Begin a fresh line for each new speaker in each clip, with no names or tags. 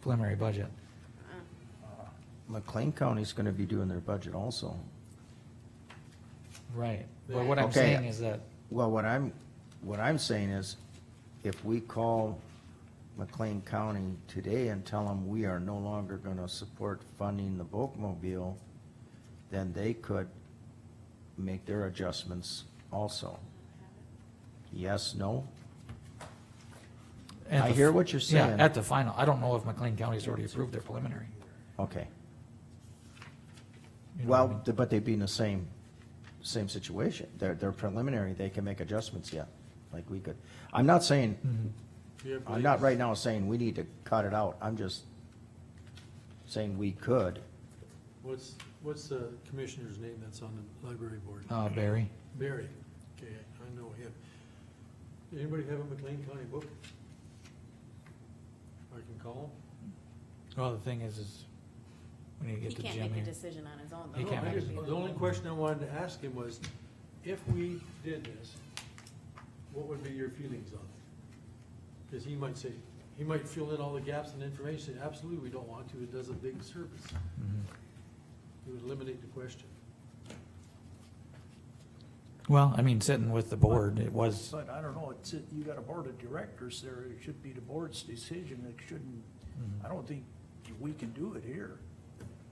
preliminary budget.
McLean County's gonna be doing their budget also.
Right. But what I'm
Okay.
saying is that,
Well, what I'm, what I'm saying is, if we call McLean County today and tell them we are no longer gonna support funding the Volkmobile, then they could make their adjustments also. Yes, no?
at
I
the-
hear what you're
yeah,
saying.
At the final, I don't know if McLean County's already approved their preliminary.
Okay.
You know what I
Well,
mean?
but they'd be in the same, same situation. They're, they're preliminary, they can make adjustments yet, like we could. I'm not saying,
Yeah,
I'm not right now saying we need to cut it out, I'm just saying we could.
What's, what's the commissioner's name that's on the library board?
Uh, Barry,
Barry, okay, I know him. Anybody have a McLean County book? I can call
well, the thing is, is we need to
He
get to
can't
Jim
make a
here.
decision on his own.
him.
He
though.
No,
can't
I
make a
just- The only question I wanted to ask him was, if we did this, what would be your feelings on it? Because he might say, he might fill in all the gaps in information, absolutely, we don't want to, it does a big service.
Mhm.
He would eliminate the question.
Well, I mean, sitting with the board, it was,
But I don't know, it's, you got a board of directors there, it should be the board's decision, it shouldn't, I don't think we can do it here.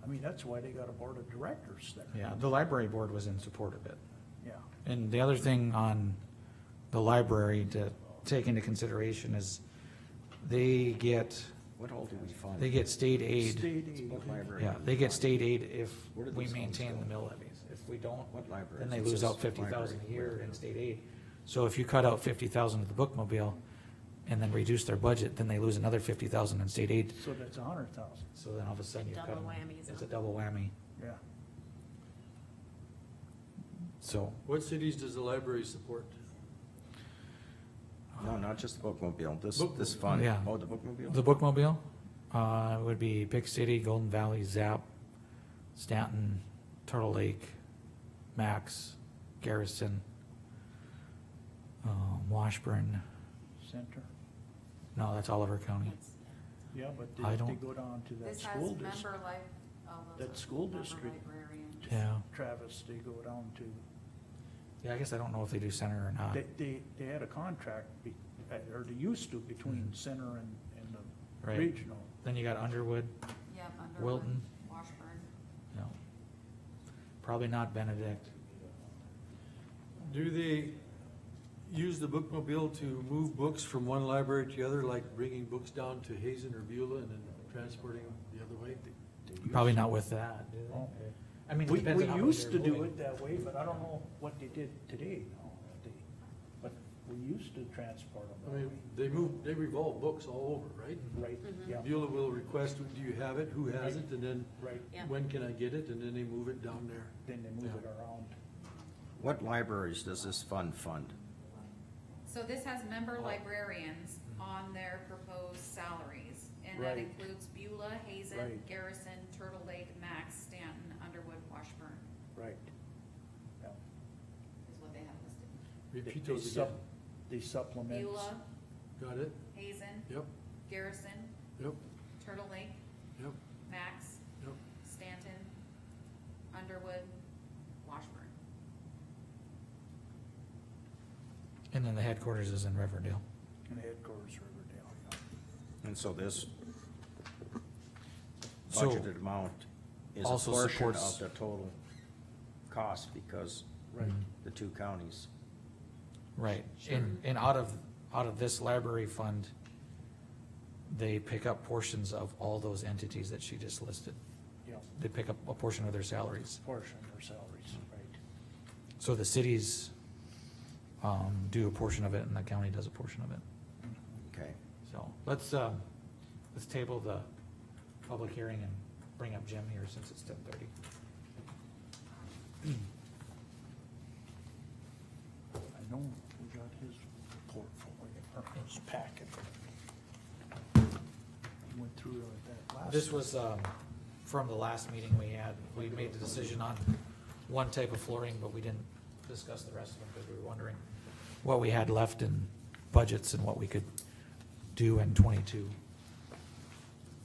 I mean, that's why they got a board of directors there.
yeah, the library board was in support of it.
Yeah,
And the other thing on the library to take into consideration is they get,
What all do we fund?
they get state aid.
state aid,
Yeah, they get state aid if
Where did
we
these funds
maintain
go?
the mill levies. If we don't,
What library?
then they lose out fifty thousand a year in state aid. So if you cut out fifty thousand of the bookmobile and then reduce their budget, then they lose another fifty thousand in state aid.
so that's a hundred thousand,
So then all of a sudden you cut
Double
them.
whammy, isn't
It's a
it?
double whammy.
yeah.
So,
What cities does the library support?
No, not just the bookmobile, this, this
Bookmobile.
fund.
Yeah.
Oh, the bookmobile?
The bookmobile, uh, would be Big City, Golden Valley, Zap, Stanton, Turtle Lake, Max, Garrison, um, Washburn,
Center,
no, that's Oliver County.
That's-
yeah, but
I
they, they
don't-
go down to that
This has
school
member
district,
life, all those.
that school
member
district.
librarian.
Yeah,
Travis, they go down to,
yeah, I guess I don't know if they do center or not.
they, they, they had a contract, be- uh, or they used to, between center and, and the
Mm-hmm. Right.
regional.
Then you got Underwood,
Yep, Underwood,
Wilton.
Washburn.
no. Probably not Benedict.
Do they use the bookmobile to move books from one library to the other, like bringing books down to Hazen or Beulah and then transporting them the other way?
Probably not with that. do they?
Oh.
I mean, it
We,
depends
we
on how much
used to
they're
do
moving.
it that way, but I don't know what they did today, now, if they- but we used to transport them.
I
that
mean,
way.
they move, they revolve books all over, right?
Right, yeah,
Beulah will request, do you have it, who has it, and then
right,
Yeah.
when can I get it, and then they move it down there.
then they move it around.
What libraries does this fund fund?
So this has member librarians on their proposed salaries, and that
Right.
includes Beulah, Hazen,
Right.
Garrison, Turtle Lake, Max, Stanton, Underwood, Washburn,
Right. Yeah.
is what they have listed.
They-
Repeat
they
those
sup-
again.
They supplement.
Beulah,
Got it?
Hazen,
Yep,
Garrison,
yep,
Turtle Lake,
yep,
Max,
yep.
Stanton, Underwood, Washburn.
And then the headquarters is in Riverdale.
and headquarters Riverdale. yeah.
And so this
So-
budgeted amount is a
Also
portion
supports-
of the total cost because
Right.
the two counties.
Mm-hmm. Right, and, and out of, out of this library fund, they pick up portions of all those entities that she just listed.
Yeah,
They pick up a portion of their salaries.
portion of their salaries, right.
So the cities, um, do a portion of it and the county does a portion of it.
Mm-hmm.
Okay.
So let's, um, let's table the public hearing and bring up Jim here since it's ten thirty.
I know we got his portfolio, or his packet. He went through it like that last.
This was, um, from the last meeting we had, we made the decision on one type of flooring, but we didn't discuss the rest of them because we were wondering what we had left in budgets and what we could do in twenty-two.